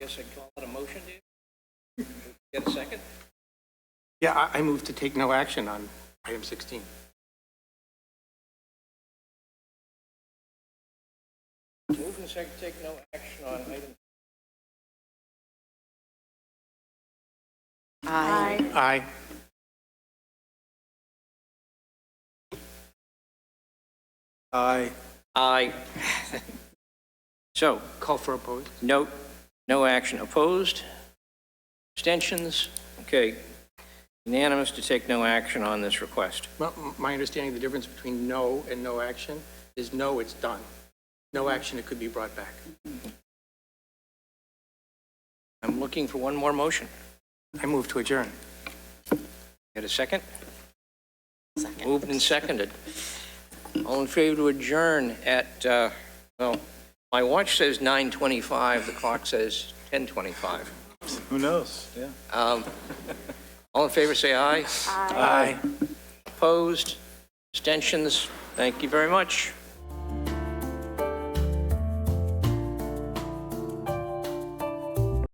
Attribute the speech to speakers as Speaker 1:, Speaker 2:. Speaker 1: Guess I'd call it a motion, dude? Get a second?
Speaker 2: Yeah, I, I move to take no action on item 16.
Speaker 1: Move and second, take no action on item.
Speaker 3: Aye.
Speaker 2: Aye. Aye.
Speaker 1: Aye. So,
Speaker 2: Call for opposed.
Speaker 1: no, no action opposed. Abstentions? Okay. Unanimous to take no action on this request.
Speaker 2: My, my understanding, the difference between no and no action is no, it's done. No action, it could be brought back.
Speaker 1: I'm looking for one more motion.
Speaker 2: I move to adjourn.
Speaker 1: Get a second?
Speaker 3: Second.
Speaker 1: Moved and seconded. All in favor to adjourn at, uh, well, my watch says 9:25, the clock says 10:25.
Speaker 4: Who knows? Yeah.
Speaker 1: Um, All in favor, say aye.
Speaker 2: Aye.
Speaker 1: Opposed? Abstentions? Thank you very much.